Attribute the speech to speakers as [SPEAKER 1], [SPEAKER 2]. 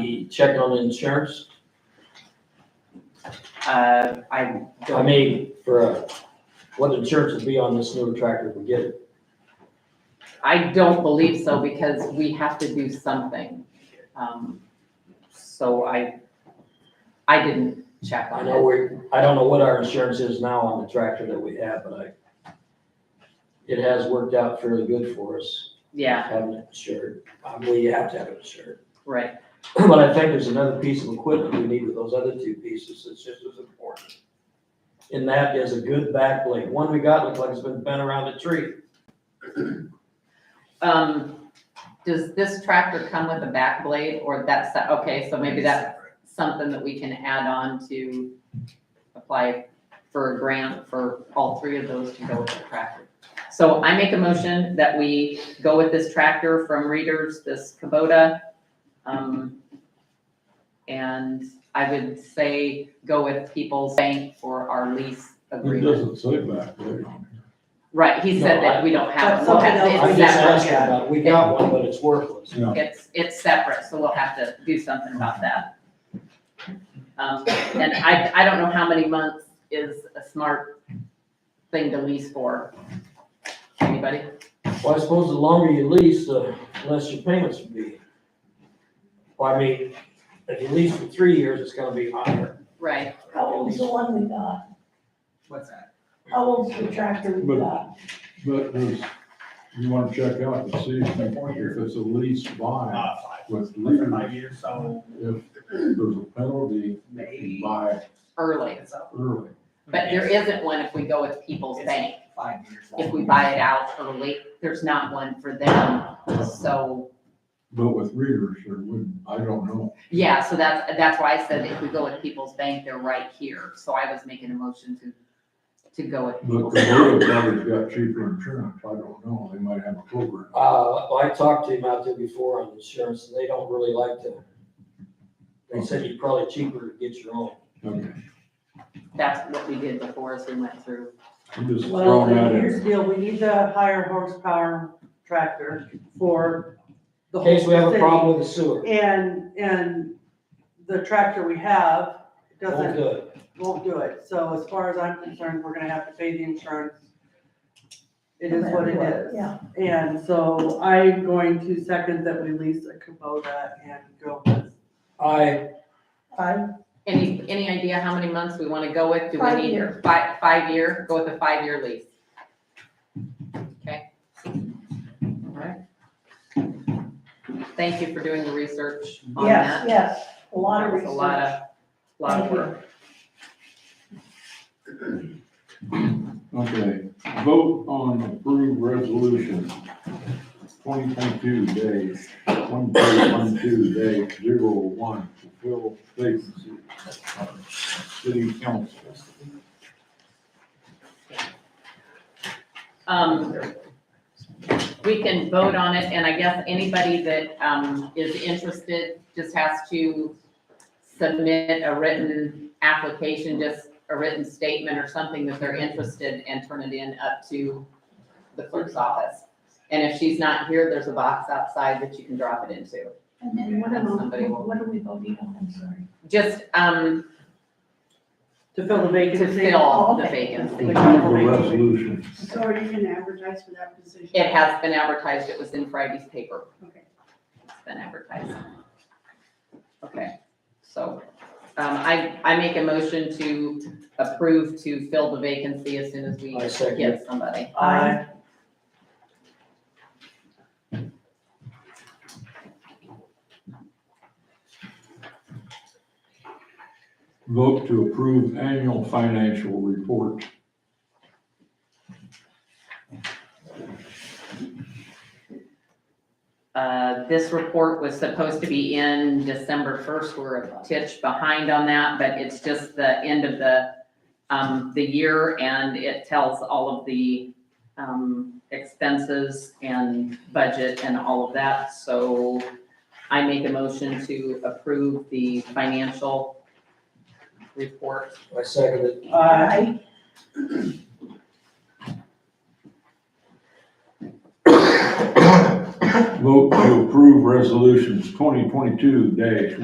[SPEAKER 1] the check on the insurance?
[SPEAKER 2] Uh, I
[SPEAKER 1] I
[SPEAKER 2] don't,
[SPEAKER 1] mean, for, uh, what insurance would be on this newer tractor if we get it?
[SPEAKER 2] I don't believe so because we have to do something. Um, So I, I didn't check
[SPEAKER 1] I
[SPEAKER 2] on
[SPEAKER 1] know
[SPEAKER 2] it.
[SPEAKER 1] we, I don't know what our insurance is now on the tractor that we have, but I, it has worked out fairly good for us,
[SPEAKER 2] Yeah,
[SPEAKER 1] having it insured. Uh, We have to have it insured.
[SPEAKER 2] right.
[SPEAKER 1] But I think there's another piece of equipment we need with those other two pieces that's just as important. And that is a good back blade. One we got looks like it's been bent around a tree.
[SPEAKER 2] Um, does this tractor come with a back blade or that's, okay, so maybe that's something that we can add on to apply for a grant for all three of those to go with the tractor. So I make a motion that we go with this tractor from Readers, this Kubota. um, And I would say go with People's Bank for our lease
[SPEAKER 3] It
[SPEAKER 2] agreement.
[SPEAKER 3] doesn't say back there.
[SPEAKER 2] Right, he said
[SPEAKER 1] No,
[SPEAKER 2] that we don't have,
[SPEAKER 4] That's
[SPEAKER 2] we'll
[SPEAKER 4] something
[SPEAKER 2] have,
[SPEAKER 4] else.
[SPEAKER 1] I'm
[SPEAKER 2] it's
[SPEAKER 1] just
[SPEAKER 2] separate,
[SPEAKER 1] asking about, it. we got one, but it's worthless.
[SPEAKER 3] Yeah.
[SPEAKER 2] it's, it's separate, so we'll have to do something about that. Um, and I, I don't know how many months is a smart thing to lease for. Anybody?
[SPEAKER 1] Well, I suppose the longer you lease, the less your payments would be. Well, I mean, if you lease for three years, it's gonna be higher.
[SPEAKER 2] Right.
[SPEAKER 4] How old's the one we got?
[SPEAKER 2] What's that?
[SPEAKER 4] How old's the tractor we got?
[SPEAKER 3] But there's, you wanna check out and see if if it's a lease buy
[SPEAKER 5] Uh, five,
[SPEAKER 3] with
[SPEAKER 5] like
[SPEAKER 3] legal,
[SPEAKER 5] five years, so
[SPEAKER 3] if there's a penalty, if you
[SPEAKER 5] maybe.
[SPEAKER 3] buy
[SPEAKER 2] Early,
[SPEAKER 3] early.
[SPEAKER 2] but there isn't one if we go with People's Bank.
[SPEAKER 5] Five years.
[SPEAKER 2] If we buy it out early, there's not one for them, so,
[SPEAKER 3] But with readers, there wouldn't, I don't know.
[SPEAKER 2] yeah, so that's, that's why I said if we go with People's Bank, they're right here. So I was making a motion to, to go with
[SPEAKER 3] But
[SPEAKER 2] People's
[SPEAKER 3] the
[SPEAKER 2] Bank.
[SPEAKER 3] road probably's got cheaper insurance, I don't know, they might have a cover.
[SPEAKER 1] Uh, well, I talked to him out there before on insurance, and they don't really like to. They said you're probably cheaper to get your own.
[SPEAKER 3] Okay,
[SPEAKER 2] That's what we did before as we went through.
[SPEAKER 3] I'm just
[SPEAKER 6] Well,
[SPEAKER 3] throwing that
[SPEAKER 6] here's the
[SPEAKER 3] in.
[SPEAKER 6] deal, we need the higher horsepower tractor for the
[SPEAKER 1] In
[SPEAKER 6] whole
[SPEAKER 1] case we have a
[SPEAKER 6] city.
[SPEAKER 1] problem with the sewer,
[SPEAKER 6] And, and the tractor we have
[SPEAKER 1] won't
[SPEAKER 6] doesn't,
[SPEAKER 1] do it.
[SPEAKER 6] won't do it. So as far as I'm concerned, we're gonna have to pay the insurance. It is what it is.
[SPEAKER 4] Yeah,
[SPEAKER 6] And so I'm going to second that we lease a Kubota and go with,
[SPEAKER 1] I,
[SPEAKER 4] I,
[SPEAKER 2] Any, any idea how many months we want to go with? Do we
[SPEAKER 4] Five
[SPEAKER 2] need
[SPEAKER 4] year.
[SPEAKER 2] Five, five year, go with a five-year lease. Okay? All right. Thank you for doing the research on
[SPEAKER 4] yes,
[SPEAKER 2] that.
[SPEAKER 4] yes, a lot of
[SPEAKER 2] That was
[SPEAKER 4] research.
[SPEAKER 2] A lot of, lot of
[SPEAKER 4] Thank you.
[SPEAKER 2] work.
[SPEAKER 3] Okay, vote on approved resolution twenty twenty-two day, one day, one two day, zero one, fulfill vacancy. City council.
[SPEAKER 2] Um, we can vote on it, and I guess anybody that, um, is interested just has to submit a written application, just a written statement or something that they're interested and turn it in up to the clerk's office. And if she's not here, there's a box outside that you can drop it into.
[SPEAKER 4] And then what am I,
[SPEAKER 2] Somebody will-
[SPEAKER 4] what are we voting on, I'm sorry?
[SPEAKER 2] Just, um,
[SPEAKER 6] to fill the
[SPEAKER 2] to
[SPEAKER 6] vacancy.
[SPEAKER 2] fill the
[SPEAKER 4] Okay.
[SPEAKER 2] vacancy.
[SPEAKER 3] Approve the resolution.
[SPEAKER 7] So are you gonna advertise for that position?
[SPEAKER 2] It has been advertised, it was in Friday's paper.
[SPEAKER 7] Okay.
[SPEAKER 2] It's been advertised. Okay, so, um, I, I make a motion to approve to fill the vacancy as soon as we
[SPEAKER 1] I second
[SPEAKER 2] get somebody.
[SPEAKER 6] I,
[SPEAKER 3] Vote to approve annual financial report.
[SPEAKER 2] Uh, this report was supposed to be in December first, we're a titch behind on that, but it's just the end of the, um, the year, and it tells all of the, um, expenses and budget and all of that, so I make a motion to approve the financial report.
[SPEAKER 1] I second it.
[SPEAKER 6] I,
[SPEAKER 4] I,
[SPEAKER 3] Vote to approve resolutions twenty twenty-two dash